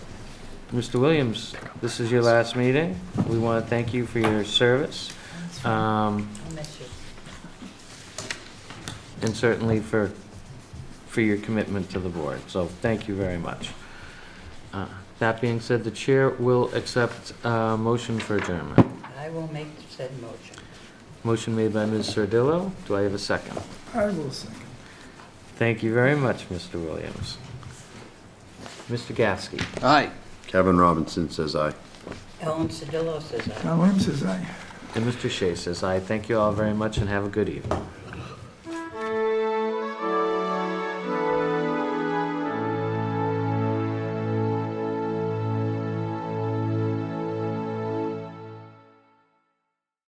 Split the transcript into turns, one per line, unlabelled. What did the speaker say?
Mr. Williams, this is your last meeting. We want to thank you for your service, um,
I miss you.
and certainly for, for your commitment to the board, so thank you very much. Uh, That being said, the chair will accept a motion for adjournment.
I will make said motion.
Motion made by Ms. Sardillo. Do I have a second?
I will second.
Thank you very much, Mr. Williams. Mr. Gasky?
Aye. Kevin Robinson says aye.
Ellen Sedillo says aye.
Now, Williams says aye.
And Mr. Shea says aye. Thank you all very much and have a good evening.